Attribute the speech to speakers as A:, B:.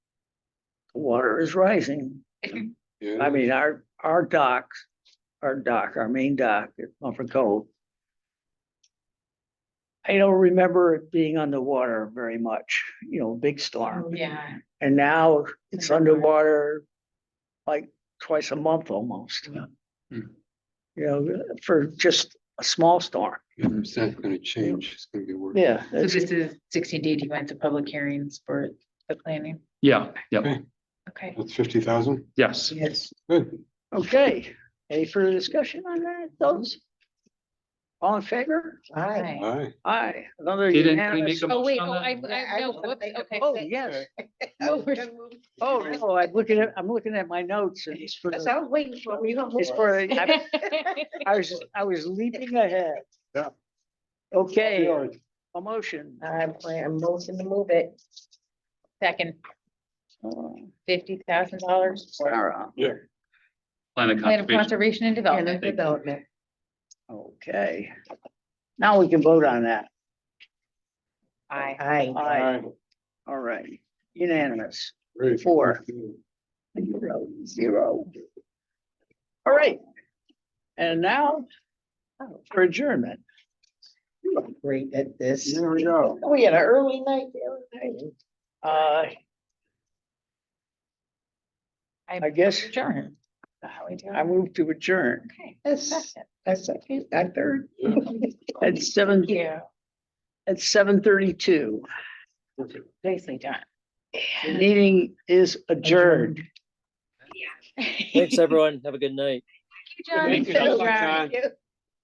A: water is rising. I
B: Yeah,
A: mean, our, our docks, our dock, our main dock at Mumford Cove. I don't remember it being underwater very much, you know, big storm.
C: Yeah.
A: And now it's
C: Mm-hmm. Underwater.
A: underwater like twice a month almost.
B: Hmm.
A: You know, for just a small storm.
B: it's not gonna change, it's gonna be worse.
A: Yeah.
C: So this is sixteen D, you went to public hearings for the planning,
D: Yeah, yeah,
B: Okay.
C: okay.
B: That's fifty thousand,
D: yes.
A: Yes.
B: good.
A: Okay, any further discussion on that, those? All in favor?
C: Aye.
B: All right.
A: Aye, another
D: Didn't we
A: unanimous.
D: make a
C: Oh, wait,
D: motion
C: oh, I,
D: on
C: I, no, whoops, okay.
A: Oh,
C: that-
A: yes,
C: no, we're-
A: oh, no, I'm looking at, I'm looking at my notes and it's for, the-
C: I was waiting for, were you gonna
A: it's
C: move?
A: for, the- I I was, I was leaping ahead.
B: Yeah.
A: Okay,
B: All right.
A: a motion.
C: I'm, I'm motion to move it. Second,
A: Oh.
C: fifty thousand dollars for
A: Sarah,
D: Plan of
C: plan of
D: conservation.
C: conservation and development.
D: Thank you.
C: Development.
A: okay. Now we can vote on that,
C: Aye.
A: aye, all right, unanimous,
B: Great.
A: Four. zero, zero. All right, and now for adjournment.
E: great at this.
A: There we go.
E: We had an early night the other night.
A: Uh, I guess
C: Adjourn. How we doing?
A: I move to adjourn
C: Okay.
E: That's, that's, second, I third.
B: Yeah.
A: at seven,
C: Yeah,
A: at seven thirty-two.
C: nicely done.
A: The meeting is adjourned.
C: Thank
F: Thanks, everyone. Have a good night.
C: you, John.
B: Thank you.
C: Thank you.